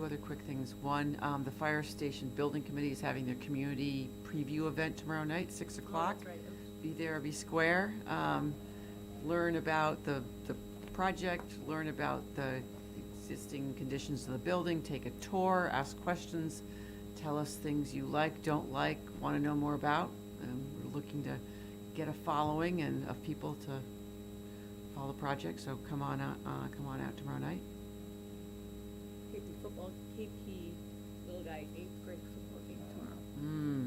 Two other quick things. One, um, the fire station building committee is having their community preview event tomorrow night, six o'clock. Oh, Be there, be square. Um, learn about the, the project, learn about the existing conditions of the building, take a tour, ask questions, tell us things you like, don't like, want to know more about. Um, we're looking to get a following and of people to follow the project, so come on out, uh, come on out tomorrow night. KP football, KP little guy, eighth grade football game tomorrow. Mm,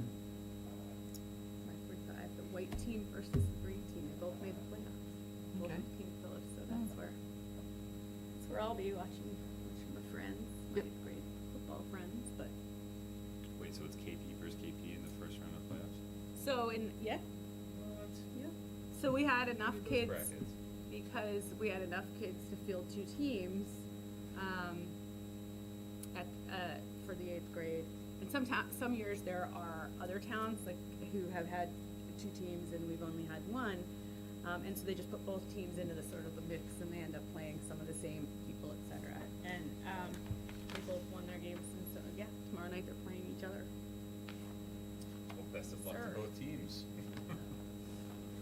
My three five, the white team versus the green team, they both made the playoffs. Both Okay. of King Phillips, so that's where, that's where I'll be watching, watching my friends, Yep. my eighth grade football friends, but, Wait, so it's KP versus KP in the first round of playoffs? so, and, yeah, What? yeah. So we had enough Look kids. at those brackets. because we had enough kids to field two teams um, at, uh, for the eighth grade. And some ta- some years there are other towns like who have had two teams and we've only had one, um, and so they just put both teams into the sort of the mix and they end up playing some of the same people, et cetera. And um, they both won their games, and so yeah, tomorrow night they're playing each other. Well, best of luck to Sir. both teams.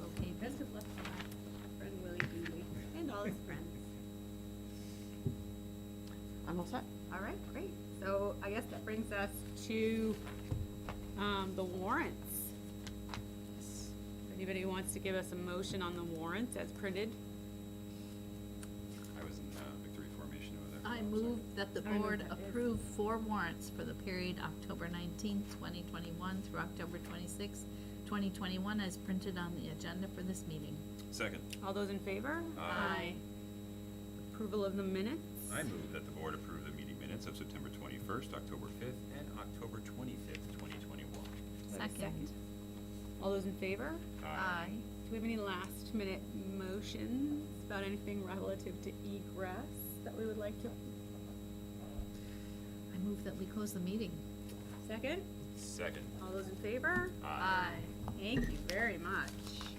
Okay, best of luck to my friend Willie Dooley and all his friends. I'm all set. All right, great. So I guess that brings us to um, the warrants. If Anybody wants to give us a motion on the warrants as printed? I was in uh, victory formation over there. I I'm move sorry. that the I know board that is- approve four warrants for the period October nineteenth, twenty twenty-one through October twenty-sixth, twenty twenty-one, as printed on the agenda for this meeting. Second, All those in favor? Aye. Approval of the minutes? I move that the board approve the meeting minutes of September twenty-first, October fifth, and October twenty-fifth, twenty twenty-one. Is there a Second. All those in favor? Aye. Do we have any last minute motions about anything relative to egress that we would like to? I move that we close the meeting. Second? Second. All those in favor? Aye. Thank you very much.